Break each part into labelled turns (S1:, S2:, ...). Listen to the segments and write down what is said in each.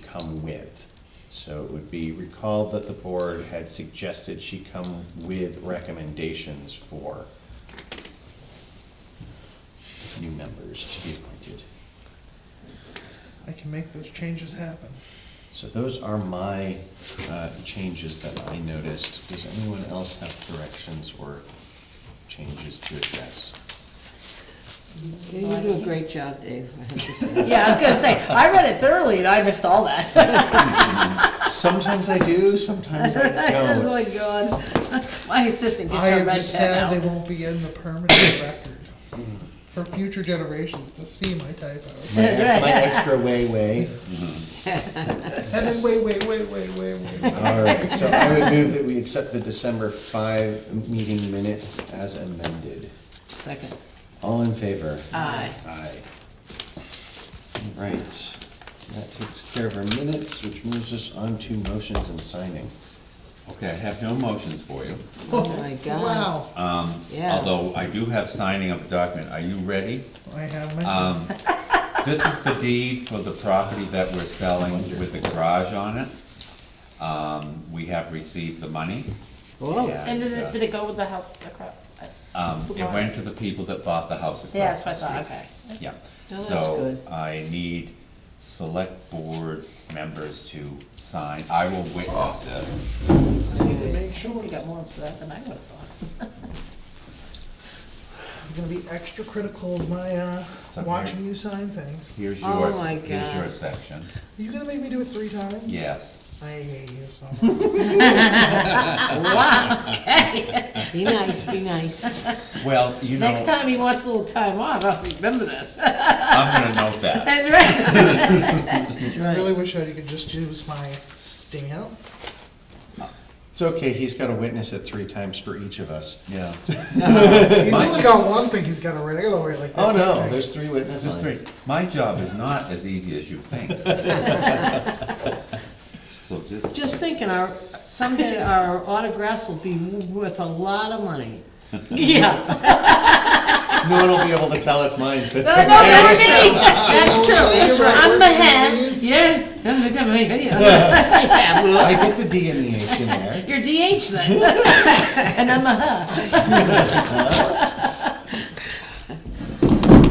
S1: come with. So it would be recalled that the board had suggested she come with recommendations for new members to be appointed.
S2: I can make those changes happen.
S1: So those are my uh, changes that I noticed. Does anyone else have corrections or changes to address?
S3: Yeah, You do a great job, Dave, I have to say.
S4: Yeah, I was gonna say, I read it thoroughly and I missed all that.
S1: Sometimes I do, sometimes I
S4: Oh
S1: don't.
S4: my god. My assistant gets
S2: I
S4: her
S2: am
S4: red
S2: just sad they
S4: pen out.
S2: won't be in the permanent record for future generations to see my typos.
S1: My my extra way, way.
S2: And then wait, wait, wait, wait, wait, wait.
S1: All right, so I would move that we accept the December five meeting minutes as amended.
S4: Second.
S1: All in favor?
S4: Aye.
S1: Aye. All Right, that takes care of our minutes, which moves us on to motions and signing.
S5: Okay, I have no motions for you,
S4: Oh my god,
S2: Wow,
S4: yeah.
S5: although I do have signing of a document. Are you ready?
S2: I have my,
S5: This is the deed for the property that we're selling with the garage on it. Um, we have received the money.
S4: Whoa,
S5: and,
S6: And did it,
S5: uh,
S6: did it go with the house across?
S5: Um, it went to the people that bought the house
S6: Yeah,
S5: across
S6: that's
S5: the
S6: what I
S5: street.
S6: thought, okay.
S5: Yeah,
S4: Oh, that's
S5: so
S4: good.
S5: I need select board members to sign. I will witness it.
S2: make sure,
S6: We got more for that than I would've thought.
S2: I'm gonna be extra critical of my, uh,
S5: So here-
S2: watching you sign things.
S5: Here's
S4: Oh
S5: yours,
S4: my
S5: here's your
S4: God.
S5: section.
S2: You gonna make me do it three times?
S5: Yes,
S2: I hate you so much.
S4: be nice, be nice.
S5: well, you know,
S4: Next time he wants a little time off, I'll remember this.
S5: I'm gonna note that.
S4: That's right.
S2: I really wish I could just use my stamp.
S1: It's okay, he's gotta witness it three times for each of us.
S5: Yeah.
S2: He's only got one thing he's gotta write, I gotta write like that.
S1: Oh, no, there's three witness
S5: This is
S1: lines.
S5: great. My job is not as easy as you think. So just,
S4: Just thinking, our, someday our autographs will be worth a lot of money. Yeah,
S1: No one will be able to tell it's mine, so it's
S4: I know,
S1: okay.
S4: that's true, that's true, that's true. I'm the head,
S2: Please.
S4: yeah. Yeah, well,
S1: I get the D and the H in there.
S4: You're DH then. And I'm a huh.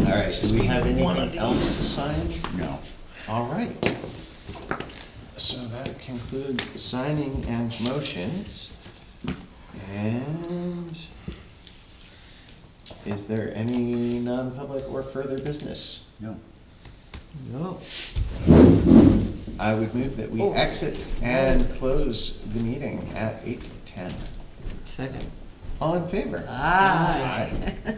S1: All right, do we have anything else signed?
S5: no.
S1: All right. So that concludes signing and motions. And is there any non-public or further business?
S5: No.
S4: No.
S1: I would move that we exit and close the meeting at eight ten.
S4: Second. Ah.
S1: All in favor?
S4: Aye.
S1: Aye.